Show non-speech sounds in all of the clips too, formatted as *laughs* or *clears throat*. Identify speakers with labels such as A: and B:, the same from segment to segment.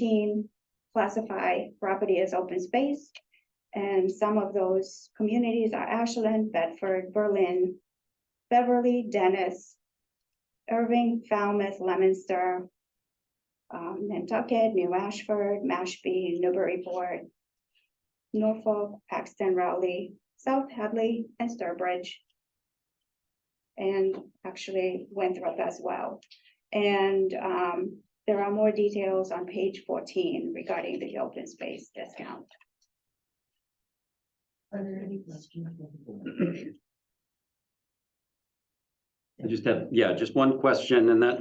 A: nineteen classify property as open space. And some of those communities are Ashland, Bedford, Berlin, Beverly, Dennis, Irving, Falmouth, Lemonster, um, Nantucket, New Ashford, Mashpee, Newburyport, Norfolk, Paxton, Rowley, South Hadley, and Sturbridge. And actually Winthrop as well. And um, there are more details on page fourteen regarding the open space discount.
B: Are there any questions? from the board?
C: I just have, yeah, just one question and that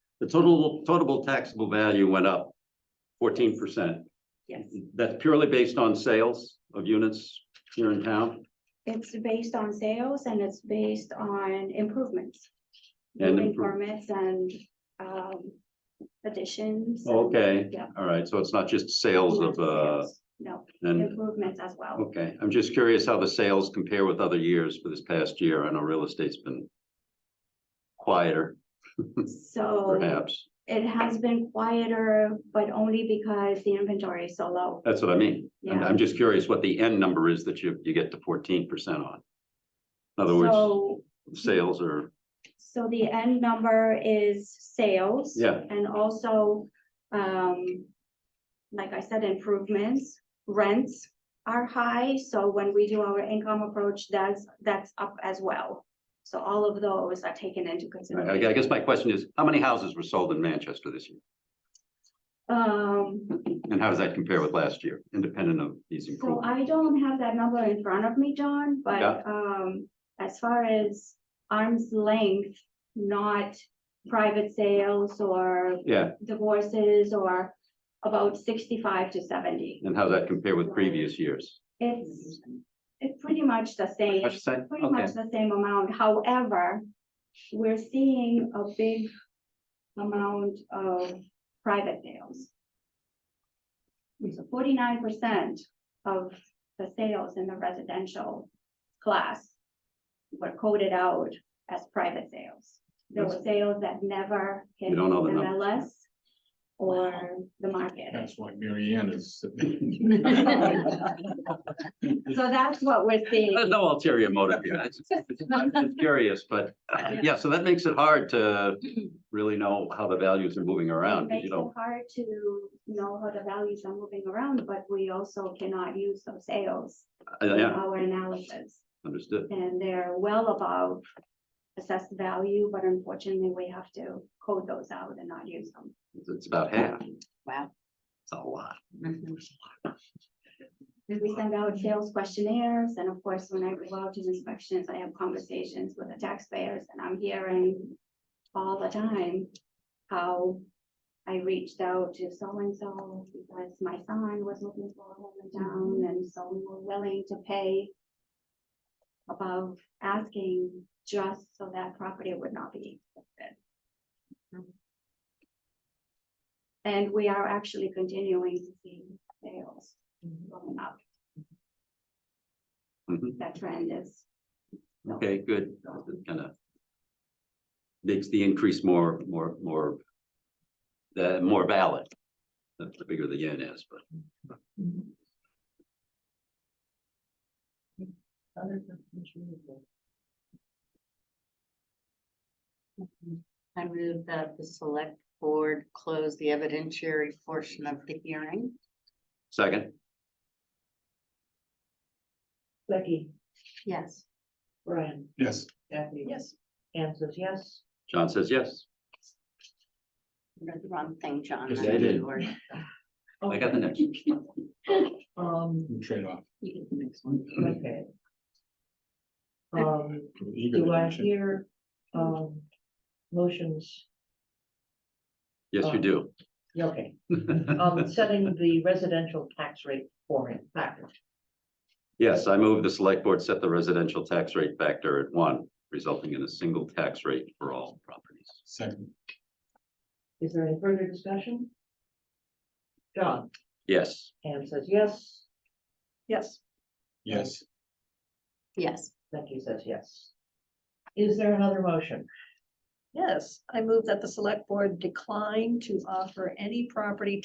C: *clears throat* the total, total taxable value went up fourteen percent.
A: Yes.
C: That's purely based on sales of units here in town.
A: It's based on sales and it's based on improvements.
C: And
A: Building
C: improve-
A: permits and um additions. and-
C: Okay,
A: Yeah.
C: all right. So it's not just Oh, sales of, uh,
A: Sales. No,
C: and,
A: improvements as well.
C: okay. I'm just curious how the sales compare with other years for this past year. I know real estate's been quieter
A: So
C: perhaps.
A: it has been quieter, but only because the inventory is so low.
C: That's what I mean. I'm,
A: Yeah.
C: I'm just curious what the end number is that you, you get to fourteen percent on. In other words,
A: So
C: sales are
A: So the end number is sales.
C: Yeah.
A: And also, um, like I said, improvements, rents are high, so when we do our income approach, that's, that's up as well. So all of those are taken into
C: I
A: consideration.
C: I guess my question is, how many houses were sold in Manchester this year?
A: Um,
C: And how does that compare with last year, independent of these
A: so
C: improvements?
A: I don't have that number in front of me, John,
C: Yeah.
A: but, um, as far as arm's length, not private sales or
C: Yeah,
A: divorces or about sixty-five to seventy.
C: and how does that compare with previous years?
A: It's, it's pretty much the same,
C: I should say,
A: pretty
C: okay,
A: much the same amount. However, we're seeing a big amount of private sales. So forty-nine percent of the sales in the residential class were coded out as private sales. There were sales that never hit
C: You don't know the number.
A: MLS or the market. *laughs*
D: That's why Mary Ann
B: *laughs*
D: is.
A: So that's what we're seeing.
C: *laughs* There's no ulterior motive here. I just- I'm just Curious,
A: *laughs*
C: but uh, yeah, so that makes it hard to really know how the values are moving around,
A: It
C: 'cause
A: makes
C: you
A: it
C: know,
A: hard to know how the values are moving around, but we also cannot use those sales in
C: yeah,
A: our analysis.
C: understood.
A: And they're well above assessed value, but unfortunately, we have to code those out and not use them.
C: It's- It's about half.
B: Wow.
C: It's a lot.
A: Mm-hmm. We send out sales questionnaires, and of course, when I go out to inspections, I have conversations with the taxpayers, and I'm hearing all the time how I reached out to so-and-so because my son was looking for a home in town, and so we were willing to pay above asking just so that property would not be listed. And we are actually continuing to see sales going up
C: Mhm.
A: that trend is.
C: Okay, good. Kind of makes the increase more, more, more, the more valid. The the bigger the yen is, but
B: Other questions from the board?
E: I move that the select board close the evidentiary portion of the hearing.
C: second,
B: Becky,
E: Yes.
B: Brian,
D: Yes,
B: Kathy. Yes. Anne says yes.
C: John says yes.
E: I read The wrong thing, John.
D: Yes,
E: I
C: I
E: read
C: did.
E: the word.
C: I got the next.
B: Um,
C: *clears throat*
D: we trade off.
B: okay. Um, do I hear, um, motions?
C: Yes, you do. *laughs*
B: Yeah, Okay, um, setting the residential tax rate formula factor.
C: Yes, I move the select board set the residential tax rate factor at one, resulting in a single tax rate for all properties.
D: Second,
B: Is there any further discussion? John,
C: Yes,
B: Anne says yes. Yes.
D: yes,
E: Yes,
B: Becky says yes. Is there another motion?
F: Yes, I move that the select board decline to offer any property